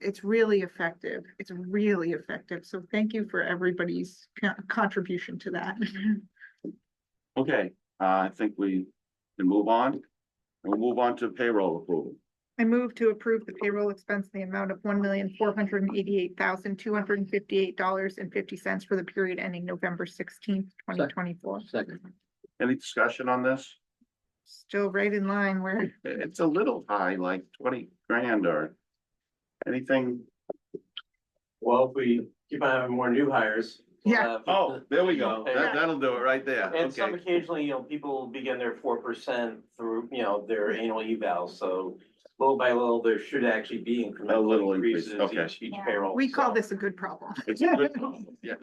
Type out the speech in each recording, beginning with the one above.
it's really effective. It's really effective. So thank you for everybody's co- contribution to that. Okay, uh, I think we can move on. We'll move on to payroll approval. I move to approve the payroll expense in the amount of one million, four hundred and eighty-eight thousand, two hundred and fifty-eight dollars and fifty cents for the period ending November sixteenth, twenty twenty-four. Second. Any discussion on this? Still right in line where, It's a little high, like twenty grand or anything. Well, if we keep on having more new hires. uh, we'll Yeah. have- Oh, there we go. Yeah. That, that'll do it right there. And some Okay. occasionally, you know, people begin their four percent through, you know, their annual evals, so little by little, there should actually be A incremental little increase, increases okay. each, each payroll. we call so. this a good problem. It's a good problem, Yes.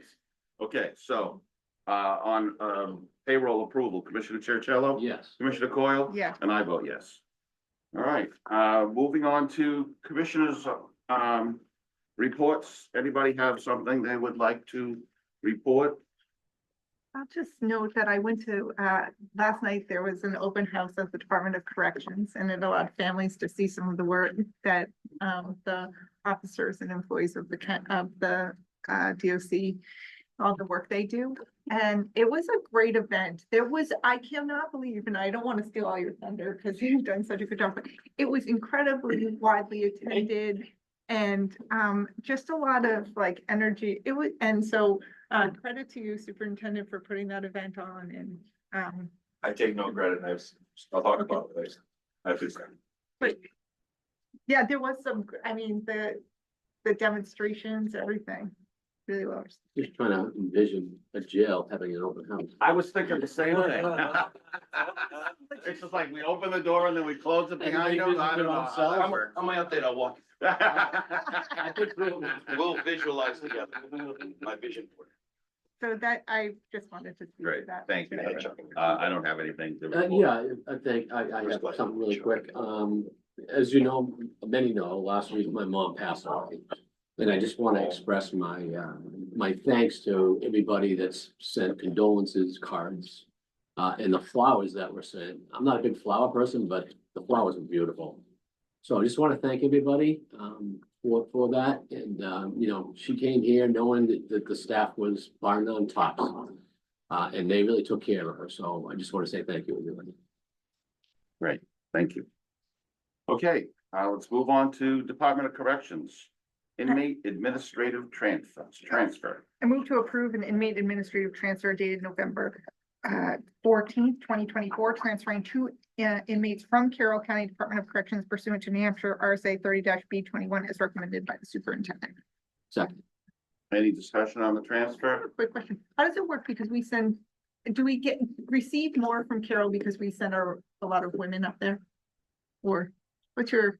Okay, so, uh, on, um, payroll approval, Commissioner Chercello? Yes. Commissioner Coyle? Yeah. And I vote yes. All right, uh, moving on to commissioners, um, reports. Anybody have something they would like to report? I'll just note that I went to, uh, last night, there was an open house at the Department of Corrections and it allowed families to see some of the work that, um, the officers and employees of the, coun- of the, uh, DOC, all the work they do. And it was a great event. There was, I cannot believe, and I don't want to steal all your thunder because you've done such a good job, but it was incredibly widely attended and, um, just a lot of like energy. It was, and so uh, credit to you, superintendent, for putting that event on and, um, I take no credit, and I've, I'll talk about it later. I have to say. yeah, there was some, gr- I mean, the, the demonstrations, everything, really well. received. Just trying to envision a jail having an open house. I was thinking the same It's just like we open the door and then we close it behind us. I don't know. how that works. I'm out there, I'll walk, Uh, we'll visualize together, my vision for it. So that, I just wanted to speak to Great, that. thank you. Heather. Uh, I don't have anything to Uh, report. yeah, I- I think I, I have something really quick. Um, as you know, many know, last week my mom passed away. And I just want to express my, uh, my thanks to everybody that's sent condolences cards. Uh, and the flowers that were sent. I'm not a big flower person, but the flowers were beautiful. So I just want to thank everybody, um, for, for that. And, um, you know, she came here knowing that, that the staff was bar none top. Uh, and they really took care of her. So I just want to say thank you, everybody. Thank you. Okay, uh, let's move on to Department of Corrections. Inmate administrative transfers, transfer. I move to approve an inmate administrative transfer dated November uh, fourteenth, twenty twenty-four, transferring two uh, inmates from Carroll County Department of Corrections pursuant to New Hampshire RSA thirty B twenty-one as recommended by the superintendent. Second, Any discussion on the I have transfer? a Quick question. How does it work? Because we send, do we get, receive more from Carol because we send our, a lot of women up there? Or what's your,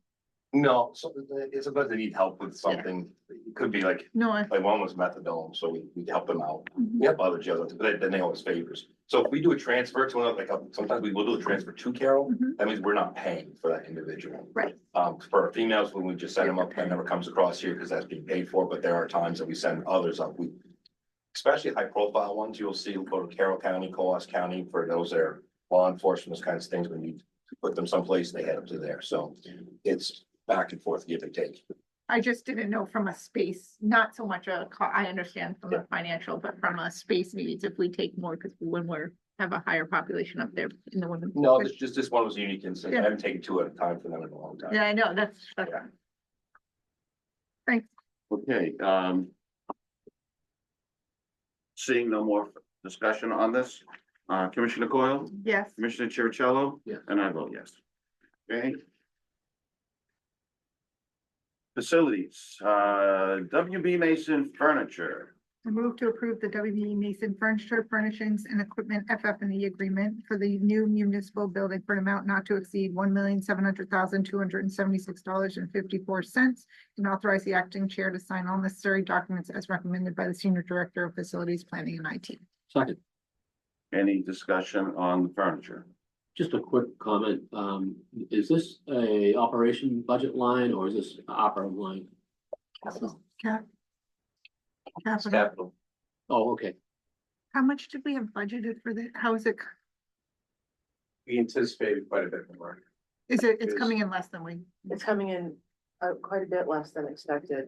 No, so it's about they need help with something, it could be like, no, I, like one was methadone, so we, we help them out. We have other jails, but then they always favors. So if we do a transfer to another, like, uh, sometimes we will do a transfer to Carol, Mhm. that means we're not paying for that individual. Right. Um, for females, when we just send them up, that never comes across here because that's being paid for, but there are times that we send others up. We. Especially high profile ones, you'll see go to Carroll County, Coas County, for those that are law enforcement, those kinds of things, when you put them someplace, they head up to there. So it's back and forth, give and take. I just didn't know from a space, not so much a, co- I understand from a financial, but from a space needs, if we take more, because when we're, have a higher population up there in the women. No, this just, this one was unique and so I Yeah. haven't taken two at a time for them in a long time. Yeah, I know, that's, that's. Yeah. Thanks. Okay, um. Seeing no more discussion on this, uh, Commissioner Coyle, Yes. Commissioner Chercello? Yes. And I vote yes. Okay. Facilities, uh, WB Mason Furniture. I move to approve the WB Mason Furniture Furnishings and Equipment ff and E agreement for the new municipal building for an amount not to exceed one million seven hundred thousand two hundred and seventy-six dollars and fifty-four cents and authorize the acting chair to sign all necessary documents as recommended by the Senior Director of Facilities Planning and IT. second. Any discussion on the furniture? Just a quick comment, um, is this a operation budget line or is this opera line? Cap- It's Capital, capital. Oh, okay, how much did we have budgeted for the, how is it, We anticipated quite a bit more. is it, it's Is- coming in less than we, It's coming in, uh, quite a bit less than expected.